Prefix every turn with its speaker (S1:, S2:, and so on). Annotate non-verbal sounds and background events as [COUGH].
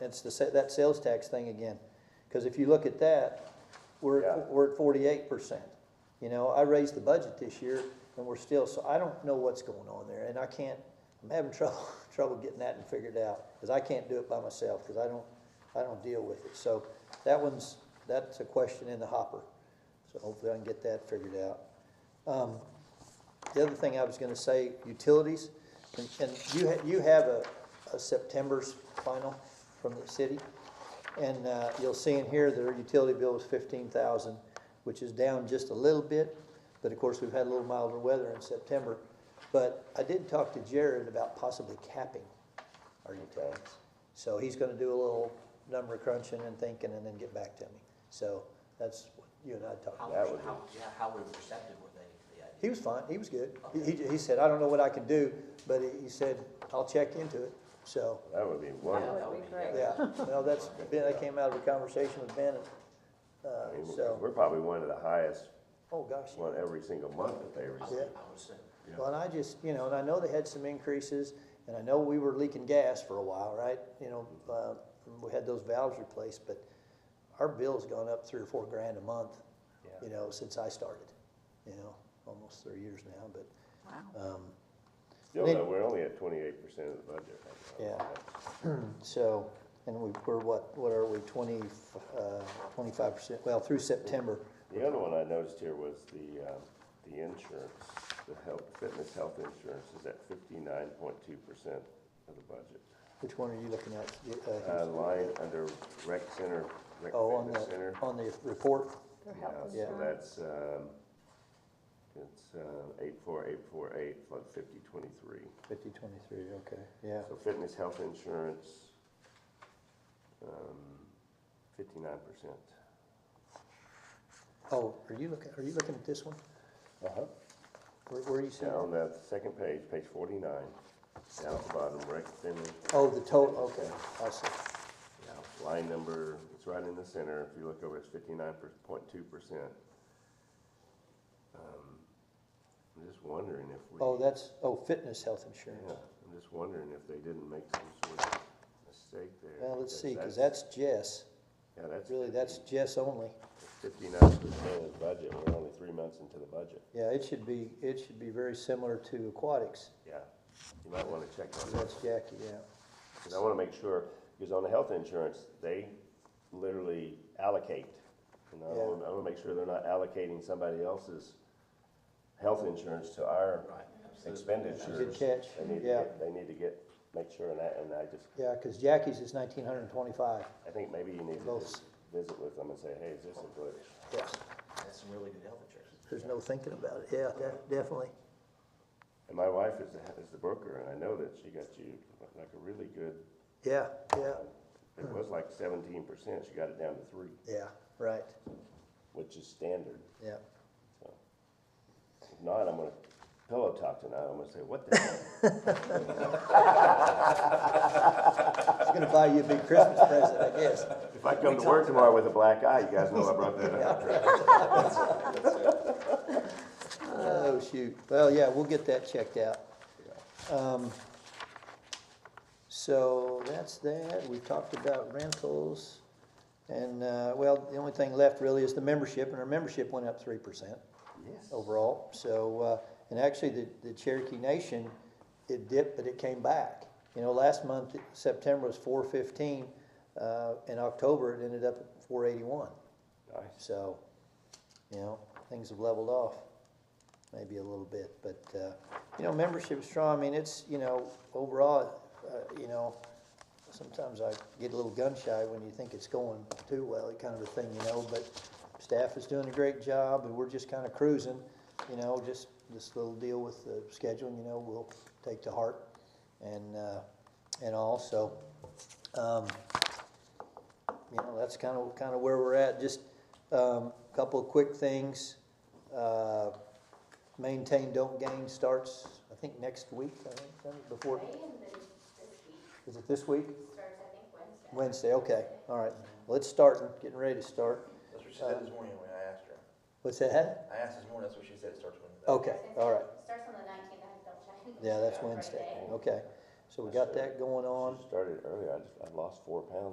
S1: It's the, sa- that sales tax thing again. Because if you look at that, we're,
S2: Yeah.
S1: at- we're at forty-eight percent. You know, I raised the budget this year and we're still, so I don't know what's going on there and I can't, I'm having [LAUGHS] trouble, trouble getting that and figured out. Because I can't do it by myself, because I don't, I don't deal with it. So that one's, that's a question in the hopper. So hopefully I can get that figured out. Um, the other thing I was gonna say, utilities, and, and you, ha- you have a, a September's final from the city. And, uh, you'll see in here, their utility bill was fifteen thousand, which is down just a little bit, but of course, we've had a little milder weather in September. But I did talk to Jared about possibly capping our utilities. So he's gonna do a little number crunching and thinking and then get back to me. So that's what you and I talked about.
S3: How,
S2: That would be-
S3: how, yeah, how receptive were they to the idea?
S1: He was fine, he was good. He, he- he said, I don't know what I can do, but he- he said, I'll check into it, so,
S2: That would be
S3: Yeah,
S2: wonderful.
S4: That would be great.
S1: yeah. Well, that's, Ben, that came out of a conversation with Ben, uh,
S2: I mean,
S1: so,
S2: We're probably one of the highest,
S1: oh, gosh.
S2: one every single month that they
S3: I
S2: receive.
S1: Yeah.
S3: would- I would assume.
S1: Well, and I just, you know, and I know they had some increases, and I know we were leaking gas for a while, right? You know, uh, we had those valves replaced, but our bill's gone up three or four grand a month, you know, since I started, you know, almost three years now, but, um,
S2: Still,
S1: Then-
S2: though, we're only at twenty-eight percent of the budget. right now.
S1: Yeah. So, and we, we're what, what are we, twenty, uh, twenty-five percent, well, through September.
S2: The other one I noticed here was the, uh, the insurance, the health, fitness health insurance is at fifty-nine point two percent of the budget.
S1: Which one are you looking at? You, uh,
S2: Uh, line under rec center, rec
S1: Oh, on
S2: fitness
S1: the,
S2: center.
S1: on the report,
S4: Their
S2: Yeah,
S4: health
S2: so
S4: insurance.
S2: that's, um, it's, uh, eight four eight four eight, flood fifty twenty-three.
S1: fifty twenty-three, okay, yeah.
S2: So fitness health insurance, um, fifty-nine percent.
S1: Oh, are you looking, are you looking at this one?
S2: Uh-huh.
S1: Where, where are you seeing?
S2: Down
S1: it?
S2: that second page, page forty-nine, down at the bottom, rec center,
S1: Oh, the total, okay, I see.
S2: Yeah, line number, it's right in the center, if you look over, it's fifty-nine point two percent. Um, I'm just wondering if we.
S1: Oh, that's, oh, fitness health
S2: Yeah,
S1: insurance.
S2: I'm just wondering if they didn't make some sort of mistake there.
S1: Well, let's see, cause
S2: because
S1: that's Jess,
S2: Yeah, that's.
S1: really, that's Jess only.
S2: Fifty-nine percent of the budget, we're only three months into the budget.
S1: Yeah, it should be, it should be very similar to aquatics,
S2: Yeah, you might wanna check on that.
S1: that's Jackie, yeah.
S2: Because I want to make sure, because on the health insurance, they literally allocate. And I want, I want to make sure they're not allocating somebody else's health insurance to our
S3: Right.
S1: Good
S2: expenditures.
S1: catch,
S2: They need to
S1: yeah.
S2: get, they need to get, make sure, and I, and I just,
S1: Yeah, because Jackie's is nineteen hundred and twenty-five.
S2: I think maybe you need to
S1: Both.
S2: just visit with them and say, hey, is this a good?
S1: Yes.
S3: That's some really good health insurance.
S1: There's no thinking about it, yeah, de- definitely.
S2: And my wife is, the- is the broker, and I know that she got you like a really good,
S1: Yeah, yeah,
S2: it was like seventeen percent, she got it down to three,
S1: yeah, right,
S2: which is standard.
S1: yeah.
S2: So, If not, I'm gonna pillow talk tonight, I'm gonna say, what [LAUGHS] the hell?
S1: It's gonna buy you a big Christmas present, I guess.
S2: If I come to work tomorrow with a black eye, you guys know I brought that up.
S1: Oh, shoot, well, yeah, we'll get that checked out. Um, So that's that, we talked about rentals, and, uh, well, the only thing left really is the membership, and our membership went up three percent.
S2: [LAUGHS] Yes.
S1: overall. So, uh, and actually, the, the Cherokee Nation, it dipped, but it came back. You know, last month, September was four fifteen, uh, in October, it ended up at four eighty-one.
S2: Nice.
S1: So, you know, things have leveled off, maybe a little bit, but, uh, you know, membership's strong, I mean, it's, you know, overall, uh, you know, sometimes I get a little gun shy when you think it's going too well, kind of a thing, you know, but staff is doing a great job, and we're just kind of cruising, you know, just this little deal with the scheduling, you know, we'll take to heart and, uh, and all, so, um, you know, that's kind of, kind of where we're at. Just um, a couple of quick things. Uh, Maintain, don't gain starts, I think, next week, I think, doesn't it? before,
S5: May and then this week
S1: is it this week?
S5: starts, I think, Wednesday.
S1: Wednesday, okay, all right. Well, it's starting, getting ready to start.
S6: That's what she said this morning when I asked her.
S1: What's that?
S6: I asked this morning, that's what she said, it starts with.
S1: Okay, all right.
S5: Starts on the nineteenth, I have to double check.
S1: Yeah, that's
S5: Friday.
S1: Wednesday, okay. So we got that going on.
S2: She started early, I just, I lost four pounds